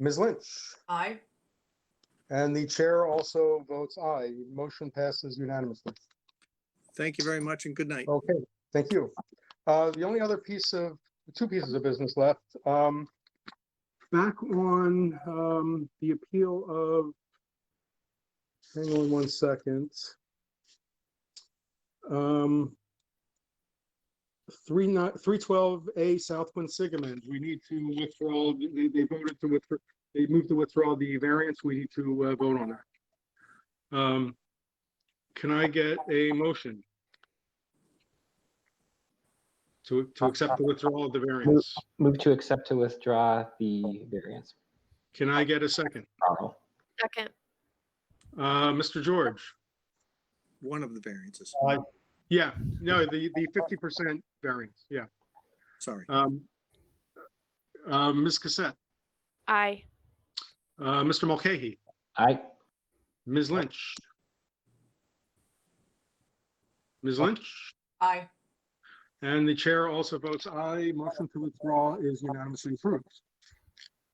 Ms. Lynch, Aye. and the chair also votes aye. Motion passes unanimously. Thank you very much and good night. Okay, thank you. Uh, The only other piece of, two pieces of business left. Um, Back on um, the appeal of, hang on one second. Um, Three not, three twelve A South Quinsigamond, we need to withdraw, they, they voted to withdraw, they moved to withdraw the variance, we need to uh, vote on that. Um, Can I get a motion? To, to accept the withdrawal of the variance. Move to accept to withdraw the variance. Can I get a second? Arnold. Second, Uh, Mr. George? One of the variances, Aye. Yeah, no, the, the fifty percent variance, yeah. sorry. Um, uh, Ms. Cassette, aye. uh, Mr. Mulcahy, Aye. Ms. Lynch? Ms. Lynch? Aye. And the chair also votes aye. Motion to withdraw is unanimously approved.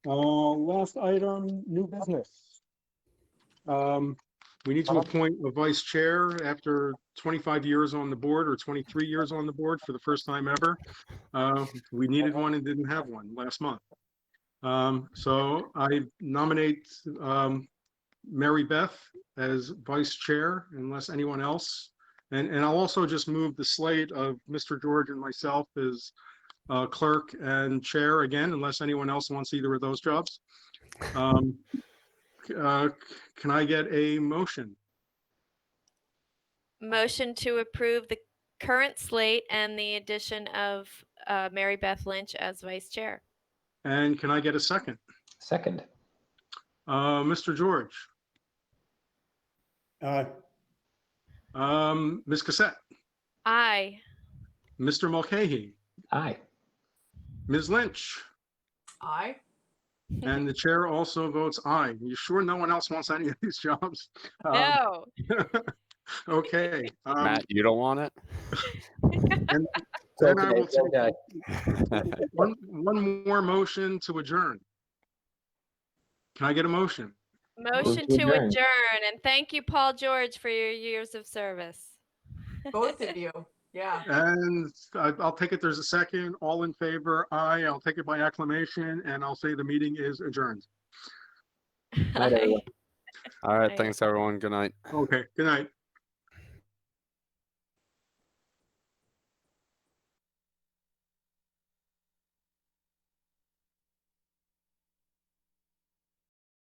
Uh, Last item, new business. Um, We need to appoint a vice chair after 25 years on the board or 23 years on the board for the first time ever. Uh, We needed one and didn't have one last month. Um, So I nominate um, Mary Beth as vice chair unless anyone else and, and I'll also just move the slate of Mr. George and myself as uh, clerk and chair again, unless anyone else wants either of those jobs. Um, c- uh, c- Can I get a motion? Motion to approve the current slate and the addition of uh, Mary Beth Lynch as vice chair. And can I get a second? Second. Uh, Mr. George? Aye. um, Ms. Cassette? Aye. Mr. Mulcahy? Aye. Ms. Lynch? Aye. And the chair also votes aye. You sure no one else wants any of these jobs? Um, No. Okay. um, Matt, you don't want it? Then I will take- One, one more motion to adjourn. Can I get a motion? Motion to to adjourn. adjourn. And thank you, Paul George, for your years of service. Both of you. Yeah. And I- I'll take it, there's a second, all in favor, aye, I'll take it by acclamation, and I'll say the meeting is adjourned. Aye. All Aye. right, thanks, everyone. Good night. Okay, good night.